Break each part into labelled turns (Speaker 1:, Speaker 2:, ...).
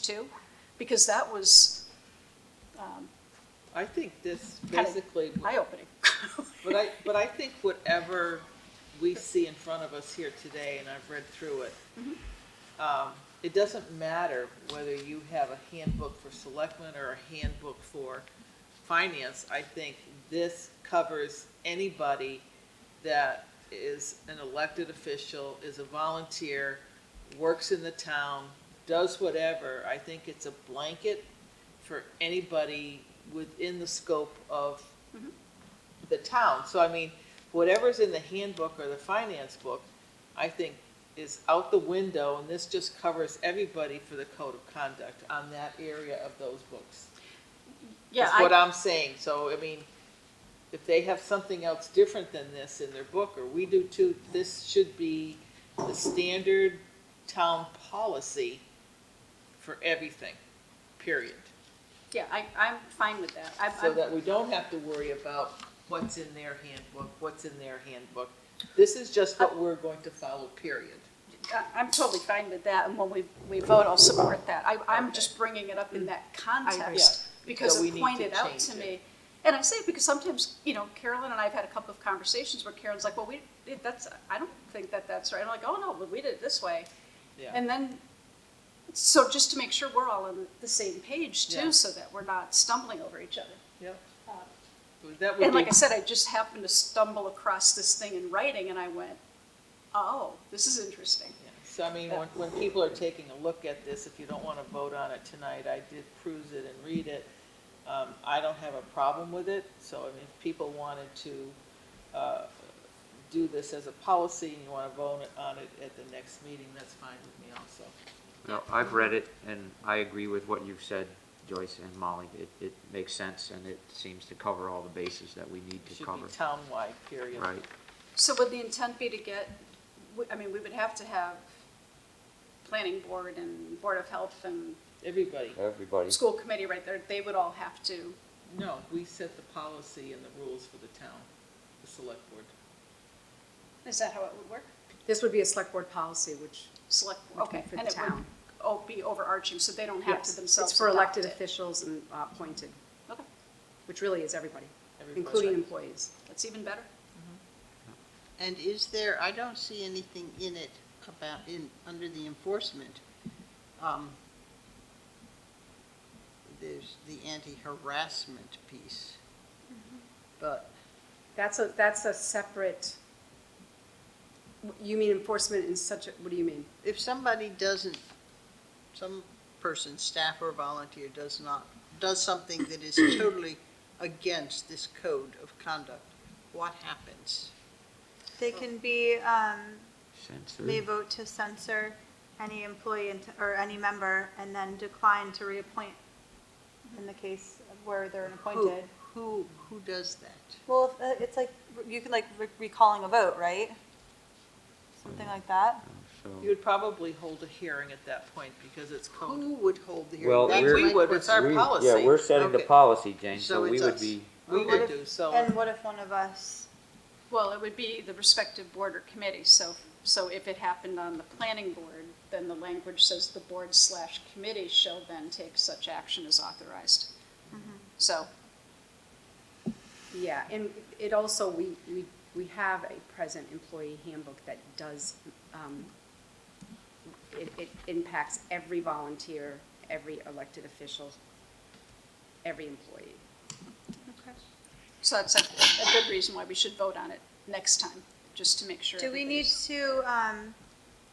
Speaker 1: too? Because that was
Speaker 2: I think this
Speaker 1: Kinda
Speaker 2: basically,
Speaker 1: eye-opening.
Speaker 2: but I, but I think whatever we see in front of us here today, and I've read through it, um, it doesn't matter whether you have a handbook for selectmen or a handbook for finance. I think this covers anybody that is an elected official, is a volunteer, works in the town, does whatever. I think it's a blanket for anybody within the scope of the town. So I mean, whatever's in the handbook or the finance book, I think is out the window, and this just covers everybody for the code of conduct on that area of those books.
Speaker 1: Yeah,
Speaker 2: Is what
Speaker 1: I,
Speaker 2: I'm saying. So I mean, if they have something else different than this in their book, or we do too, this should be the standard town policy for everything, period.
Speaker 1: yeah, I, I'm fine with that. I-
Speaker 2: so
Speaker 1: I'm-
Speaker 2: that we don't have to worry about what's in their handbook, what's in their handbook. This is just what we're going to follow, period.
Speaker 1: I- I'm totally fine with that, and when we, we vote, I'll support that. I, I'm just bringing it up in that context,
Speaker 2: Yeah.
Speaker 1: because
Speaker 2: So we
Speaker 1: it
Speaker 2: need to
Speaker 1: pointed out to
Speaker 2: change it.
Speaker 1: me. And I say it because sometimes, you know, Carolyn and I've had a couple of conversations where Karen's like, well, we, it- that's, I don't think that that's right. I'm like, oh, no, but we did it this way.
Speaker 2: Yeah,
Speaker 1: And then, so just to make sure we're all on the same page
Speaker 2: Yeah.
Speaker 1: too, so that we're not stumbling over each other.
Speaker 2: yeah. That would
Speaker 1: And like
Speaker 2: be,
Speaker 1: I said, I just happened to stumble across this thing in writing, and I went, oh, this is interesting.
Speaker 2: yeah. so I mean, when, when people are taking a look at this, if you don't want to vote on it tonight, I did cruise it and read it. Um, I don't have a problem with it, so I mean, if people wanted to, uh, do this as a policy and you want to vote on it at the next meeting, that's fine with me also.
Speaker 3: No, I've read it, and I agree with what you've said, Joyce and Molly. It, it makes sense, and it seems to cover all the bases that we need
Speaker 2: It
Speaker 3: to
Speaker 2: Should
Speaker 3: cover.
Speaker 2: be townwide, period.
Speaker 3: Right,
Speaker 1: So would the intent be to get, I mean, we would have to have planning board and board of health and
Speaker 2: Everybody.
Speaker 3: everybody.
Speaker 1: school committee right there, they would all have to,
Speaker 2: No, we set the policy and the rules for the town, the select board.
Speaker 1: is that how it would work?
Speaker 4: This would be a select board policy, which,
Speaker 1: Select, okay,
Speaker 4: For the
Speaker 1: and it would
Speaker 4: town.
Speaker 1: oh, be overarching, so they don't have
Speaker 4: yes,
Speaker 1: to
Speaker 4: it's
Speaker 1: themselves
Speaker 4: for
Speaker 1: adopt
Speaker 4: elected
Speaker 1: it.
Speaker 4: officials and uh, appointed,
Speaker 1: Okay,
Speaker 4: which really is everybody,
Speaker 2: Everybody.
Speaker 4: including employees.
Speaker 1: that's even better.
Speaker 5: And is there, I don't see anything in it about, in, under the enforcement. um, There's the anti-harassment piece. But
Speaker 4: That's a, that's a separate, you mean enforcement in such, a what do you mean?
Speaker 5: if somebody doesn't, some person, staff or volunteer, does not, does something that is totally against this code of conduct, what happens?
Speaker 6: They can be, um,
Speaker 3: Censor.
Speaker 6: they vote to censor any employee and- or any member and then decline to reappoint in the case of where they're
Speaker 5: Who,
Speaker 6: appointed.
Speaker 5: who, who does that?
Speaker 6: Well, if, uh, it's like, you could like re- recalling a vote, right? Something like that.
Speaker 2: You
Speaker 3: So,
Speaker 2: would probably hold a hearing at that point because it's code.
Speaker 5: Who would hold the hearing?
Speaker 3: Well,
Speaker 5: That's
Speaker 3: we're-
Speaker 5: my
Speaker 2: We would, it's
Speaker 5: question.
Speaker 2: our
Speaker 3: We-
Speaker 2: policy.
Speaker 3: Yeah, we're setting the
Speaker 5: Okay.
Speaker 3: policy, Jane,
Speaker 5: So
Speaker 3: so we
Speaker 5: it's
Speaker 3: would
Speaker 5: us.
Speaker 3: be,
Speaker 2: We
Speaker 6: What
Speaker 2: would
Speaker 6: if-
Speaker 2: do, so,
Speaker 6: And what if one of us,
Speaker 1: Well, it would be the respective board or committee, so, so if it happened on the planning board, then the language says the board slash committee shall then take such action as authorized.
Speaker 6: Mm-hmm.
Speaker 1: So,
Speaker 4: Yeah, and it also, we, we, we have a present employee handbook that does, um, it, it impacts every volunteer, every elected official, every employee.
Speaker 1: so that's a, a good reason why we should vote on it next time, just to make sure.
Speaker 6: do we need
Speaker 1: everybody's-
Speaker 6: to, um,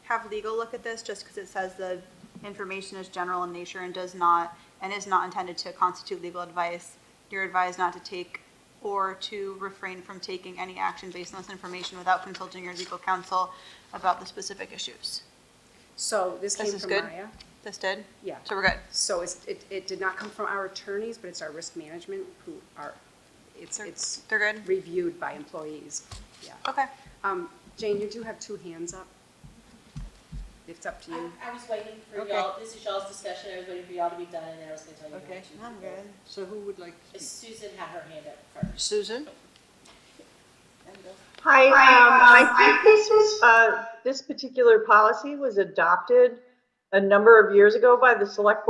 Speaker 6: have legal look at this just because it says the information is general in nature and does not, and is not intended to constitute legal advice? You're advised not to take or to refrain from taking any action based on this information without consulting your legal counsel about the specific issues.
Speaker 4: So this
Speaker 6: This
Speaker 4: came
Speaker 6: is
Speaker 4: from
Speaker 6: good?
Speaker 4: Maya.
Speaker 6: This did?
Speaker 4: Yeah.
Speaker 6: So we're good.
Speaker 4: So it's, it, it did not come from our attorneys, but it's our risk management who are, it's,
Speaker 6: They're-
Speaker 4: it's
Speaker 6: they're good?
Speaker 4: reviewed by employees, yeah.
Speaker 6: Okay.
Speaker 4: Um, Jane, you do have two hands up. It's up to you.
Speaker 7: I, I was waiting for
Speaker 5: Okay.
Speaker 7: y'all. This is y'all's discussion. I was waiting for y'all to be done, and then I was going to tell you. who
Speaker 5: Okay.
Speaker 7: to-
Speaker 6: I'm good.
Speaker 5: So who would like to speak?
Speaker 7: Susan had her hand up first.
Speaker 5: Susan?
Speaker 8: Hi, um, I think this was, uh, this particular policy was adopted a number of years ago by the select board.